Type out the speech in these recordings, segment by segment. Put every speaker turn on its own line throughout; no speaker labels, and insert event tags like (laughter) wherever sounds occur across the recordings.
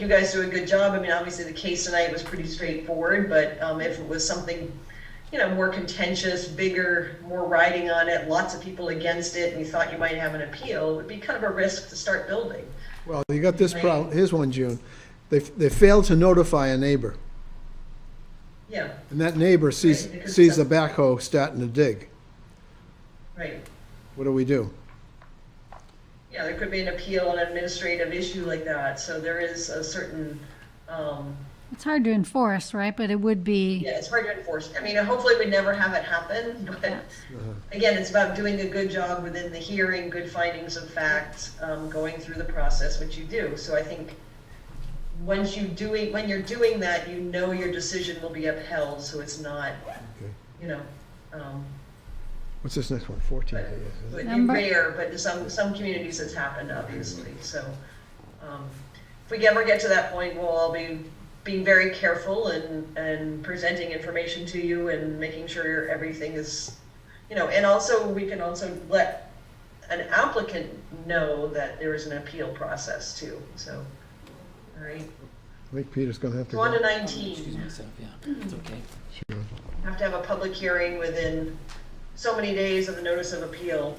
you guys do a good job. I mean, obviously, the case tonight was pretty straightforward, but um, if it was something, you know, more contentious, bigger, more riding on it, lots of people against it, and you thought you might have an appeal, it would be kind of a risk to start building.
Well, you got this problem, here's one, June. They, they failed to notify a neighbor,
Yeah,
and that neighbor sees,
Right, because
sees the
that's-
backhoe starting to dig.
right.
What do we do?
Yeah, there could be an appeal, an administrative issue like that. So there is a certain, um,
It's hard to enforce, right? But it would be,
yeah, it's hard to enforce. I mean, hopefully, we never have it happen, but. Again, it's about doing a good job within the hearing, good findings of fact, um, going through the process, which you do. So I think once you doing, when you're doing that, you know your decision will be upheld, so it's not, you know, um,
What's this next one? Fourteen, I guess,
it
isn't it?
would be
Number-
rare, but in some, some communities it's happened, obviously, so. um, If we ever get to that point, we'll all be being very careful and, and presenting information to you and making sure everything is, you know, and also, we can also let an applicant know that there is an appeal process too, so, all right.
I think Peter's gonna have to
So on to
go.
Excuse
nineteen,
myself, yeah, it's okay.
have to have a public hearing within so many days of the notice of appeal.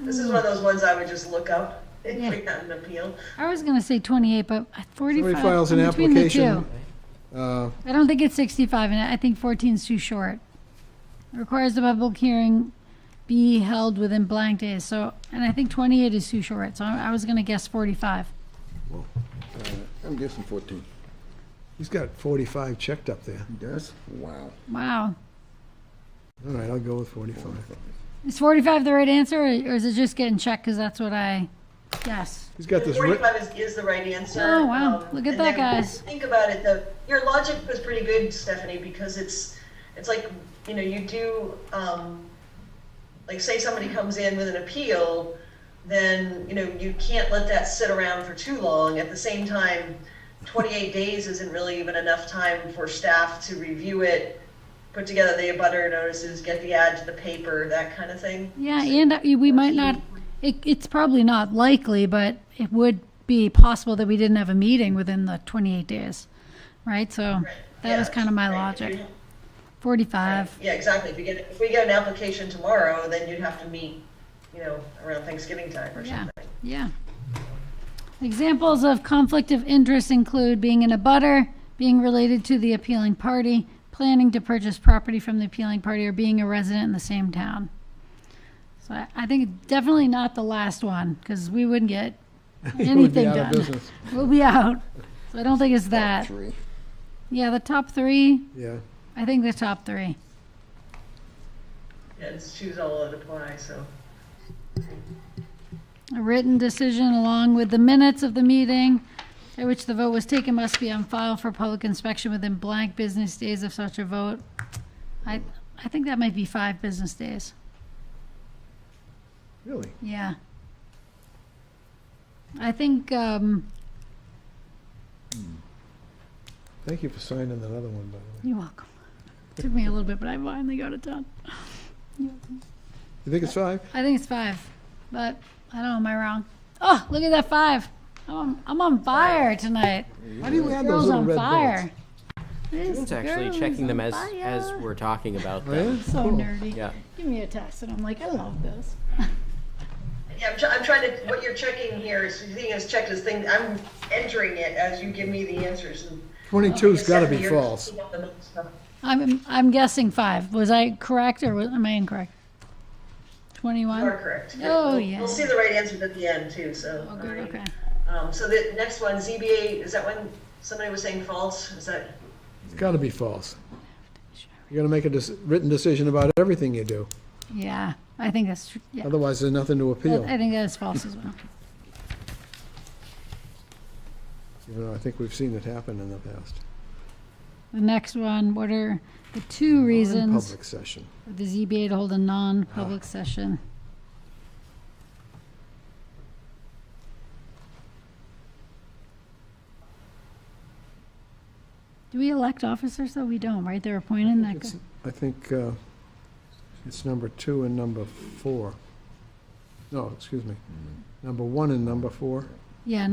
This is one of those ones I would just look up if we had an appeal.
I was going to say 28, but 45.
Somebody files an
I'm between the
application.
two.
Uh,
I don't think it's 65, and I think 14 is too short. Requires the public hearing be held within blank days, so, and I think 28 is too short, so I I was going to guess 45.
I'm guessing 14.
he's got forty-five checked up there.
He does? Wow.
Wow.
All right, I'll go with forty-five.
Is 45 the right answer, or or is it just getting checked because that's what I, yes.
He's got this writ,
Forty-five is, is the right answer.
Oh, wow.
Um,
Look at
and then
that, guys.
Think about it, though, your logic was pretty good, Stephanie, because it's, it's like, you know, you do, um, like, say somebody comes in with an appeal, then, you know, you can't let that sit around for too long. At the same time, twenty-eight days isn't really even enough time for staff to review it, put together the abutter notices, get the ad to the paper, that kind of thing.
Yeah, and uh, we might not, it, it's probably not likely, but it would be possible that we didn't have a meeting within the 28 days, right? So that was
Yeah.
kind of my
Right. If you
logic. 45,
Yeah, exactly. If you get, if we get an application tomorrow, then you'd have to meet, you know, around Thanksgiving time or
Yeah.
something.
yeah. Examples of conflict of interest include being in a butter, being related to the appealing party, planning to purchase property from the appealing party, or being a resident in the same town. So I, I think definitely not the last one, because we
(laughs)
wouldn't get
he would be
anything
out of
done.
business.
We'll be out. So I don't think it's that.
Three.
Yeah, the top three.
Yeah,
I think the top three.
Yeah, it's choose all that apply, so.
A written decision along with the minutes of the meeting at which the vote was taken must be on file for public inspection within blank business days of such a vote. I, I think that might be five business days.
really?
Yeah. I think, um,
Thank you for signing that other one, by the way.
you're welcome. Took me a little bit, but I finally got it done.
You think it's five?
I think it's five, but I don't know. Am I wrong? Oh, look at that five. I'm on, I'm on fire tonight.
How do you add those
Girls
little
on
red
fire.
dots?
This
It's actually
girl
checking
is
them
on
as,
fire.
as we're talking about uh,
Oh,
them.
yeah?
so
Cool.
nerdy.
Yeah,
Give me a test, and I'm like, I love this.
Yeah, I'm, try- I'm trying to, what you're checking here is, the thing is checked is thing, I'm entering it as you give me the answers and.
Twenty-two's gotta be
You're-
false.
I'm I'm guessing five. Was I correct or was, am I incorrect?
You are
Twenty-one.
correct.
Oh,
We'll-
yeah.
We'll see the right answers at the end too, so.
Oh, good.
alright.
Okay.
Um, so the next one, ZBA, is that one, somebody was saying false? Is that?
It's gotta be false. You gotta make a dec- written decision about everything you do,
Yeah, I think that's tr- yeah.
otherwise there's nothing to appeal.
I think that's false as well.
Even though I think we've seen it happen in the past.
The next one. What are the two reasons?
Public session.
for the ZBA to hold a non-public session. Do we elect officers, though? We don't, right? They're appointed, that
It's-
go-
I think uh, it's number two and number four. No, excuse me, number one and number four.
Yeah,